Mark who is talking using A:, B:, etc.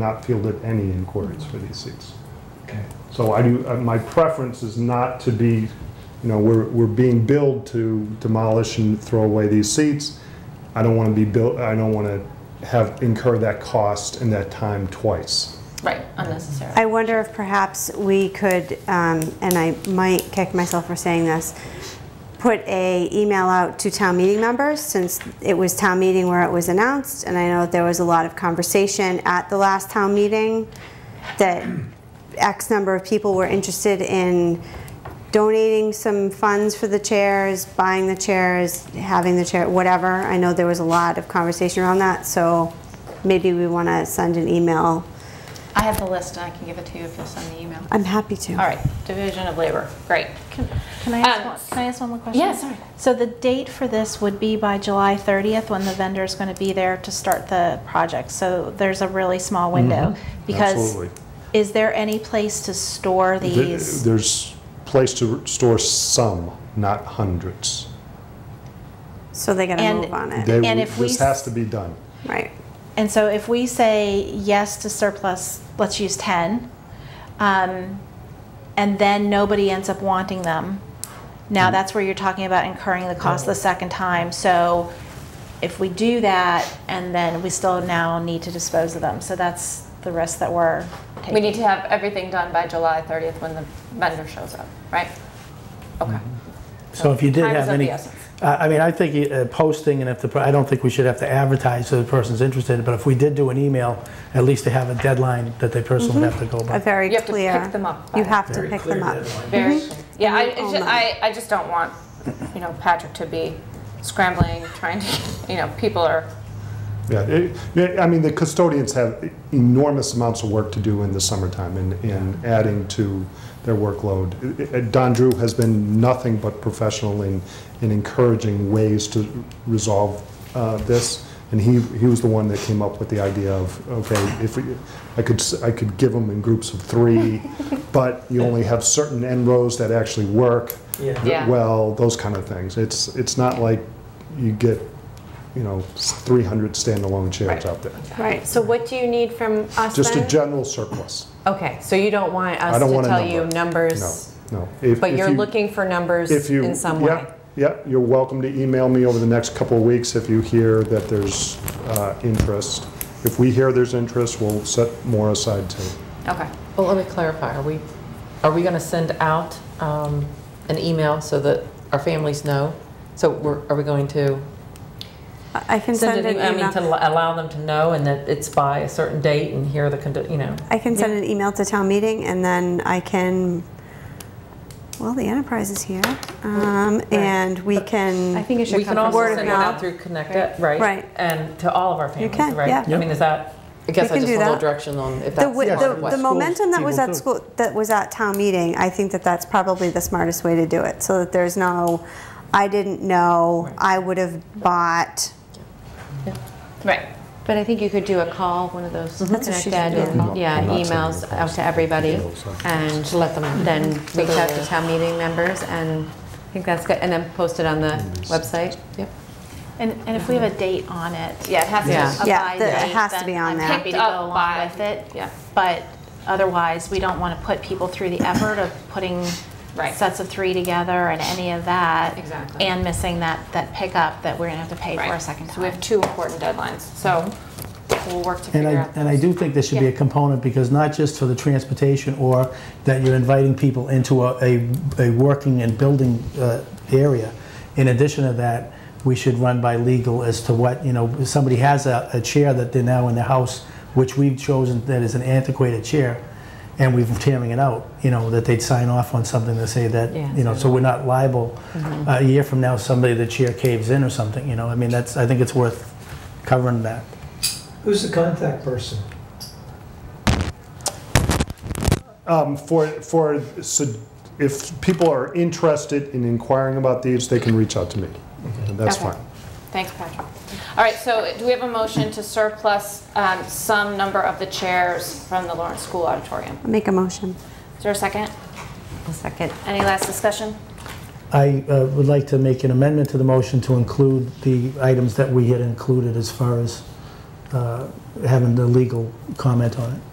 A: not fielded any inquiries for these seats.
B: Okay.
A: So I do, uh, my preference is not to be, you know, we're, we're being billed to demolish and throw away these seats. I don't want to be built, I don't want to have, incur that cost and that time twice.
C: Right, unnecessary.
D: I wonder if perhaps we could, um, and I might kick myself for saying this, put a email out to town meeting members, since it was town meeting where it was announced, and I know there was a lot of conversation at the last town meeting that X number of people were interested in donating some funds for the chairs, buying the chairs, having the chair, whatever. I know there was a lot of conversation around that, so maybe we want to send an email.
C: I have the list, and I can give it to you if you'll send the email.
D: I'm happy to.
C: All right, division of labor, great.
E: Can can I
C: Um,
E: ask, one- can I ask one more question?
C: yeah, sorry.
E: So the date for this would be by July 30th, when the vendor's going to be there to start the project. So there's a really small window. Because
A: Absolutely.
E: is there any place to store
A: Th-
E: these?
A: There's place to store some, not hundreds.
D: So they gotta
E: And-
D: move on it.
A: They-
E: And if we
A: This
E: s-
A: has to be done.
D: right.
E: And so if we say yes to surplus, let's use 10, um, and then nobody ends up wanting them, now that's where you're talking about incurring the cost the second time. So if we do that, and then we still now need to dispose of them, so that's the risk that we're taking.
C: We need to have everything done by July 30th when the vendor shows up, right? Okay.
B: Mhm. So if you did
C: Time is
B: have
C: of
B: any,
C: the
B: I
C: essence.
B: I mean, I think uh, posting and if the, per- I don't think we should have to advertise so the person's interested, but if we did do an email, at least to have a deadline that they personally
C: Mm-hmm.
B: have to
D: A
B: go by.
D: very
C: You have to
D: clear.
C: pick them up by
D: You have to
B: Very
D: pick
B: clear
D: them up.
B: deadline.
C: Very, yeah, I, it's
D: all
C: just,
D: done.
C: I, I just don't want, you know, Patrick to be scrambling, trying to, you know, people are,
A: Yeah, it- yeah, I mean, the custodians have enormous amounts of work to do in the summertime and, and adding to their workload. I- I- Don Drew has been nothing but professional in, in encouraging ways to resolve uh, this. And he, he was the one that came up with the idea of, okay, if we, I could, s- I could give them in groups of three, but you only have certain end rows that actually work
B: Yeah.
C: yeah.
A: well, those kind of things. It's, it's not like you get, you know, 300 standalone chairs
C: Right.
A: out there.
D: Right.
F: So what do you need from us
A: Just a
F: then?
A: general surplus.
F: Okay, so you don't want us
A: I don't
F: to
A: want a
F: tell you
A: number.
F: numbers,
A: No, no. If-
F: but
A: if
F: you're
A: you-
F: looking for numbers
A: if you-
F: in some way?
A: yeah, Yeah, you're welcome to email me over the next couple of weeks if you hear that there's uh, interest. If we hear there's interest, we'll set more aside too.
C: Okay.
G: Well, let me clarify, are we, are we going to send out um, an email so that our families know? So we're, are we going to
D: I I can send an
G: e- I mean, to
D: email.
G: al- allow them to know and that it's by a certain date and here are the, condi- you know?
D: I can send an email to town meeting and then I can, well, the enterprise is here. Um, and we
F: I
D: can,
F: think it should
G: We can
F: come from
G: also
D: word of
G: send it out
D: mouth.
G: through Connect It, right?
D: Right.
G: And to all of our
D: can,
G: families,
D: yeah.
G: right? I mean, is that, I guess I
D: can do
G: just want a
D: that.
G: little direction on if
D: the,
G: that's
D: wi-
G: part
D: the,
G: of what.
D: the momentum that was
B: people
D: at
B: do.
D: school, that was at town meeting, I think that that's probably the smartest way to do it. So that there's no, I didn't know,
G: Right.
D: I would have bought.
C: Right.
F: But I think you could do a call, one of those
D: Mm-hmm. That's what she
F: connected,
D: should do.
F: and, yeah,
A: I'm not sending
F: emails
A: the
F: out to everybody,
A: Emails, I'm-
F: and let them
D: Mm-hmm.
F: then reach out to town meeting members, and I think that's good, and then post it on the website. Yep.
E: And, and if we have a date on it.
C: Yeah, it has to.
G: Yeah.
E: a
D: Yeah,
E: by
D: the- it
E: date,
D: has to
E: then
D: be on
E: I'm
D: there.
E: happy to
C: Picked
E: go
C: up
E: along
C: by-
E: with it.
C: yeah.
E: But otherwise, we don't want to put people through the effort of putting
C: Right.
E: sets of three together and any of that.
C: Exactly.
E: And missing that, that pickup that we're gonna have to pay for a
C: Right.
E: second time.
C: So we have two important deadlines, so we'll work to
B: Mhm. And
C: figure
B: I,
C: out.
B: and I do think there should be a component, because not just for the transportation, or that you're inviting people into a, a, a working and building uh, area. In addition to that, we should run by legal as to what, you know, if somebody has a, a chair that they're now in the house, which we've chosen that is an antiquated chair, and we've tearing it out, you know, that they'd sign off on something to say that,
G: Yeah.
B: you know, so we're not liable.
C: Mm-hmm.
B: A year from now, somebody, the chair caves in or something, you know, I mean, that's, I think it's worth covering that.
H: Who's the contact person?
A: Um, For, for, su- if people are interested in inquiring about these, they can reach out to me. And That's
C: Okay.
A: fine.
C: Thanks, Patrick. All right, so do we have a motion to surplus um, some number of the chairs from the Lawrence School Auditorium?
D: I'll Make a motion.
C: Is there a second?
F: A second.
C: Any last discussion?
B: I uh, would like to make an amendment to the motion to include the items that we had included as far as uh, having the legal comment on it.